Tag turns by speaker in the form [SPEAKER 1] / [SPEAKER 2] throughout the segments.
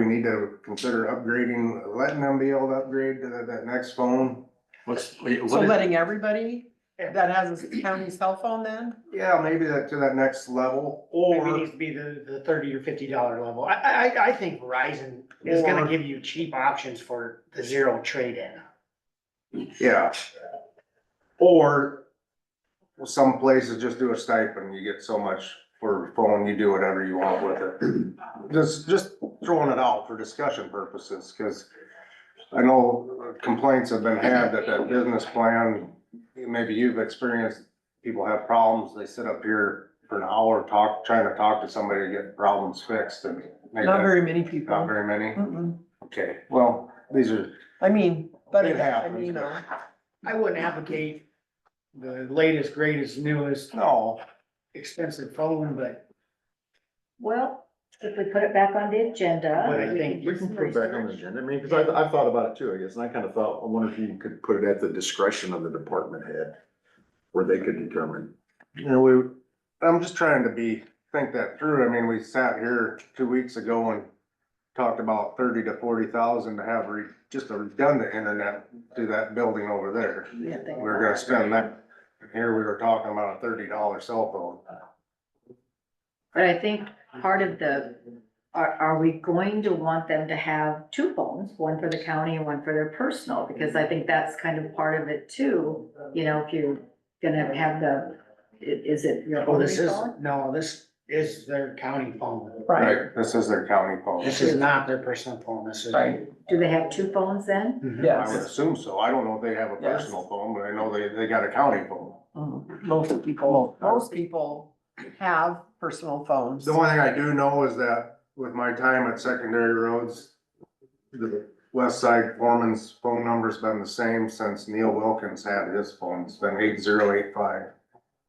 [SPEAKER 1] need to consider upgrading, letting them be able to upgrade to that, that next phone.
[SPEAKER 2] What's, wait,
[SPEAKER 3] So
[SPEAKER 2] what is,
[SPEAKER 3] letting everybody that has a county cell phone then?
[SPEAKER 1] Yeah, maybe that, to that next level,
[SPEAKER 4] Maybe it
[SPEAKER 1] or,
[SPEAKER 4] needs to be the, the thirty or fifty dollar level. I, I, I- I think Verizon is
[SPEAKER 1] Or-
[SPEAKER 4] gonna give you cheap options for the zero trade-in.
[SPEAKER 1] yeah. Or well, some places just do a stipend, you get so much for a phone, you do whatever you want with it. Just, just throwing it out for discussion purposes, cause I know complaints have been had that that business plan, maybe you've experienced, people have problems, they sit up here for an hour, talk, trying to talk to somebody to get problems fixed and maybe
[SPEAKER 3] Not very many
[SPEAKER 1] not
[SPEAKER 3] people.
[SPEAKER 1] very many.
[SPEAKER 3] Mm-mm.
[SPEAKER 1] Okay, well, these are,
[SPEAKER 3] I mean, but
[SPEAKER 1] It
[SPEAKER 3] it, I
[SPEAKER 1] happens.
[SPEAKER 3] mean, uh, you know,
[SPEAKER 4] I wouldn't advocate the latest, greatest, newest,
[SPEAKER 1] no,
[SPEAKER 4] expensive phone, but,
[SPEAKER 5] Well, if we put it back on the
[SPEAKER 4] but
[SPEAKER 5] agenda.
[SPEAKER 4] I think.
[SPEAKER 6] We can put it back on the agenda, I mean, because I've, I've thought about it too, I guess, and I kind of thought, I wonder if you could put it at the discretion of the department head, where they could determine.
[SPEAKER 1] you know, we, I'm just trying to be, think that through. I mean, we sat here two weeks ago and talked about thirty to forty thousand to have re, just a redundant internet to that building over there. We were gonna spend that, here we were talking about a thirty dollar cell
[SPEAKER 5] But I think part of the, are, are we going to want them to have two phones, one for the county and one for their personal? Because I think that's kind of part of it too, you know, if you're gonna have the, i- is it your
[SPEAKER 4] Oh,
[SPEAKER 5] only
[SPEAKER 4] this is,
[SPEAKER 5] phone?
[SPEAKER 4] no, this is their county phone.
[SPEAKER 1] phone.
[SPEAKER 3] right,
[SPEAKER 1] This is their county phone.
[SPEAKER 4] This is not their personal phone, this is.
[SPEAKER 3] right,
[SPEAKER 5] Do they have two phones then?
[SPEAKER 4] Mhm.
[SPEAKER 1] I would
[SPEAKER 3] yes.
[SPEAKER 1] assume so. I don't know if they have a
[SPEAKER 3] Yes.
[SPEAKER 1] personal phone, but I know they, they got a county phone.
[SPEAKER 3] Mhm. Most people, most people have personal phones.
[SPEAKER 1] The one thing I do know is that with my time at secondary roads, the west side foreman's phone number's been the same since Neil Wilkins had his phone. It's been eight zero eight five.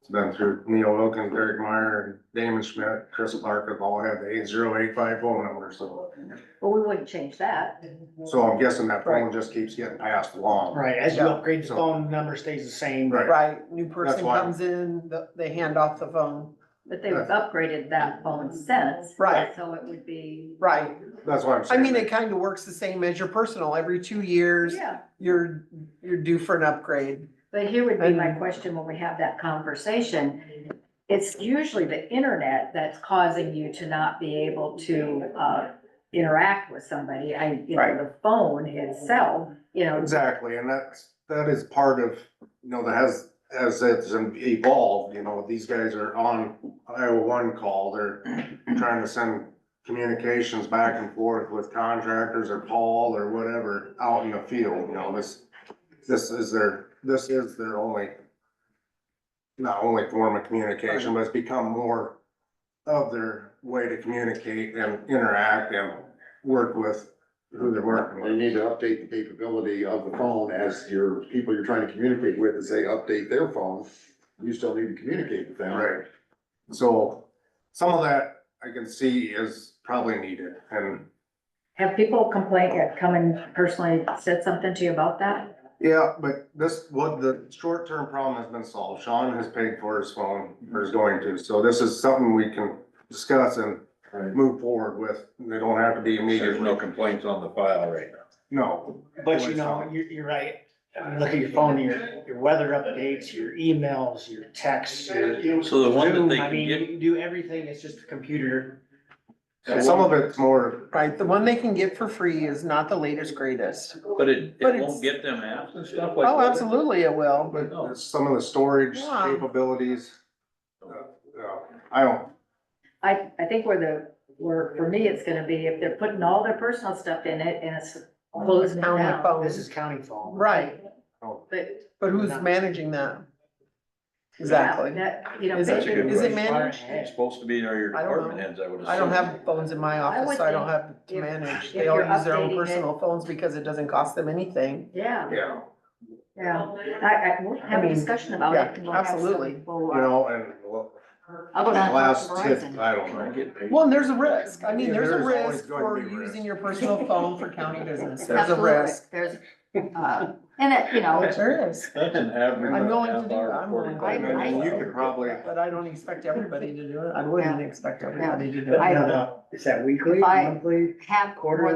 [SPEAKER 1] It's been through Neil Wilkins, Derek Meyer, and Damon Schmidt, Chris Clark have all had the eight zero eight five phone number, so.
[SPEAKER 5] Well, we wouldn't change that.
[SPEAKER 1] So I'm guessing that phone just keeps getting passed along.
[SPEAKER 4] Right, as you
[SPEAKER 3] Yeah.
[SPEAKER 4] upgrade, the phone number stays the same.
[SPEAKER 1] Right.
[SPEAKER 3] Right, new person
[SPEAKER 1] why.
[SPEAKER 3] comes in, the- they hand off the phone,
[SPEAKER 5] But they've upgraded that phone since.
[SPEAKER 3] Right.
[SPEAKER 5] So it would be.
[SPEAKER 3] right.
[SPEAKER 1] That's why I'm
[SPEAKER 3] I
[SPEAKER 1] saying.
[SPEAKER 3] mean, it kind of works the same as your personal, every two years,
[SPEAKER 5] Yeah,
[SPEAKER 3] you're, you're due for an upgrade.
[SPEAKER 5] but here would be my
[SPEAKER 3] And-
[SPEAKER 5] question when we have that conversation. It's usually the internet that's causing you to not be able to, uh, interact with somebody. I, you know,
[SPEAKER 3] Right.
[SPEAKER 5] the phone itself, you know,
[SPEAKER 1] Exactly, and that's, that is part of, you know, that has, as it's evolved, you know, these guys are on Iowa One call, they're trying to send communications back and forth with contractors or Paul or whatever out in the field, you know, this, this is their, this is their only, not only form of communication, but it's become more of their way to communicate and interact and work with who they're working with.
[SPEAKER 6] They need to update the capability of the phone as your, people you're trying to communicate with, and say, update their phone, you still need to communicate with them.
[SPEAKER 1] Right. So some of that I can see is probably needed and,
[SPEAKER 5] have people complain, uh, come and personally said something to you about that?
[SPEAKER 1] yeah, but this, what the short-term problem has been solved. Sean has paid for his phone or is going to. So this is something we can discuss and
[SPEAKER 6] Right.
[SPEAKER 1] move forward with. They don't have to be
[SPEAKER 7] There's no
[SPEAKER 1] immediately,
[SPEAKER 7] complaints on the file right now.
[SPEAKER 1] no.
[SPEAKER 4] But you know, you're, you're right. I mean, look at your phone, your, your weather updates, your emails, your texts, your.
[SPEAKER 2] So the one that they
[SPEAKER 4] Zoom, I
[SPEAKER 2] can
[SPEAKER 4] mean,
[SPEAKER 2] get-
[SPEAKER 4] you can do everything, it's just a computer.
[SPEAKER 1] Some of it's more,
[SPEAKER 3] Right, the one they can get for free is not the latest greatest.
[SPEAKER 2] But it,
[SPEAKER 3] But
[SPEAKER 2] it
[SPEAKER 3] it's-
[SPEAKER 2] won't get them apps and stuff like that?
[SPEAKER 3] Oh, absolutely it will.
[SPEAKER 1] but it's some of the storage
[SPEAKER 3] Yeah.
[SPEAKER 1] capabilities. Uh, yeah, I don't,
[SPEAKER 5] I, I think where the, where, for me, it's gonna be if they're putting all their personal stuff in it and it's closing it
[SPEAKER 3] County
[SPEAKER 5] down.
[SPEAKER 3] phone.
[SPEAKER 4] This is county phone.
[SPEAKER 3] Right,
[SPEAKER 5] But
[SPEAKER 3] but who's
[SPEAKER 4] Not-
[SPEAKER 3] managing that?
[SPEAKER 5] Yeah,
[SPEAKER 3] Exactly.
[SPEAKER 5] That, you know.
[SPEAKER 3] Is
[SPEAKER 2] That's a good
[SPEAKER 3] it, is it
[SPEAKER 2] question.
[SPEAKER 3] managed?
[SPEAKER 2] It's supposed to be your your
[SPEAKER 3] I don't
[SPEAKER 2] department
[SPEAKER 3] know.
[SPEAKER 2] heads, I would assume.
[SPEAKER 3] I don't have phones in my office,
[SPEAKER 5] would
[SPEAKER 3] so I don't
[SPEAKER 5] think
[SPEAKER 3] have to
[SPEAKER 5] if-
[SPEAKER 3] manage.
[SPEAKER 5] if
[SPEAKER 3] They all
[SPEAKER 5] you're
[SPEAKER 3] use their own
[SPEAKER 5] updating it-
[SPEAKER 3] personal phones because it doesn't cost them anything.
[SPEAKER 5] Yeah,
[SPEAKER 1] yeah.
[SPEAKER 5] yeah. I, I, we'll have a
[SPEAKER 3] mean,
[SPEAKER 5] discussion about
[SPEAKER 3] yeah,
[SPEAKER 5] it. and we'll have some-
[SPEAKER 3] absolutely.
[SPEAKER 5] we'll, uh,
[SPEAKER 1] You know, and well,
[SPEAKER 5] I'll go down and talk
[SPEAKER 1] last
[SPEAKER 5] to
[SPEAKER 1] tip,
[SPEAKER 5] Verizon.
[SPEAKER 1] I don't
[SPEAKER 2] Can I
[SPEAKER 1] know.
[SPEAKER 2] get paid?
[SPEAKER 3] Well, and there's a risk. I mean,
[SPEAKER 1] Yeah,
[SPEAKER 3] there's a
[SPEAKER 1] there is always
[SPEAKER 3] risk
[SPEAKER 1] going to
[SPEAKER 3] for
[SPEAKER 1] be risk.
[SPEAKER 3] using your personal phone for county business. There's a
[SPEAKER 5] Absolutely.
[SPEAKER 3] risk.
[SPEAKER 5] There's, uh, and it, you know,
[SPEAKER 3] There is.
[SPEAKER 2] That's an average.
[SPEAKER 3] I'm willing to do that.
[SPEAKER 2] half-hour
[SPEAKER 3] I'm willing.
[SPEAKER 2] recording.
[SPEAKER 1] And then you could probably,
[SPEAKER 3] But I don't expect everybody to do it. I wouldn't expect everybody to do
[SPEAKER 4] But
[SPEAKER 3] it.
[SPEAKER 5] I-
[SPEAKER 4] now the- Is that weekly,
[SPEAKER 5] I-
[SPEAKER 4] monthly?
[SPEAKER 5] have
[SPEAKER 4] Quarter
[SPEAKER 5] more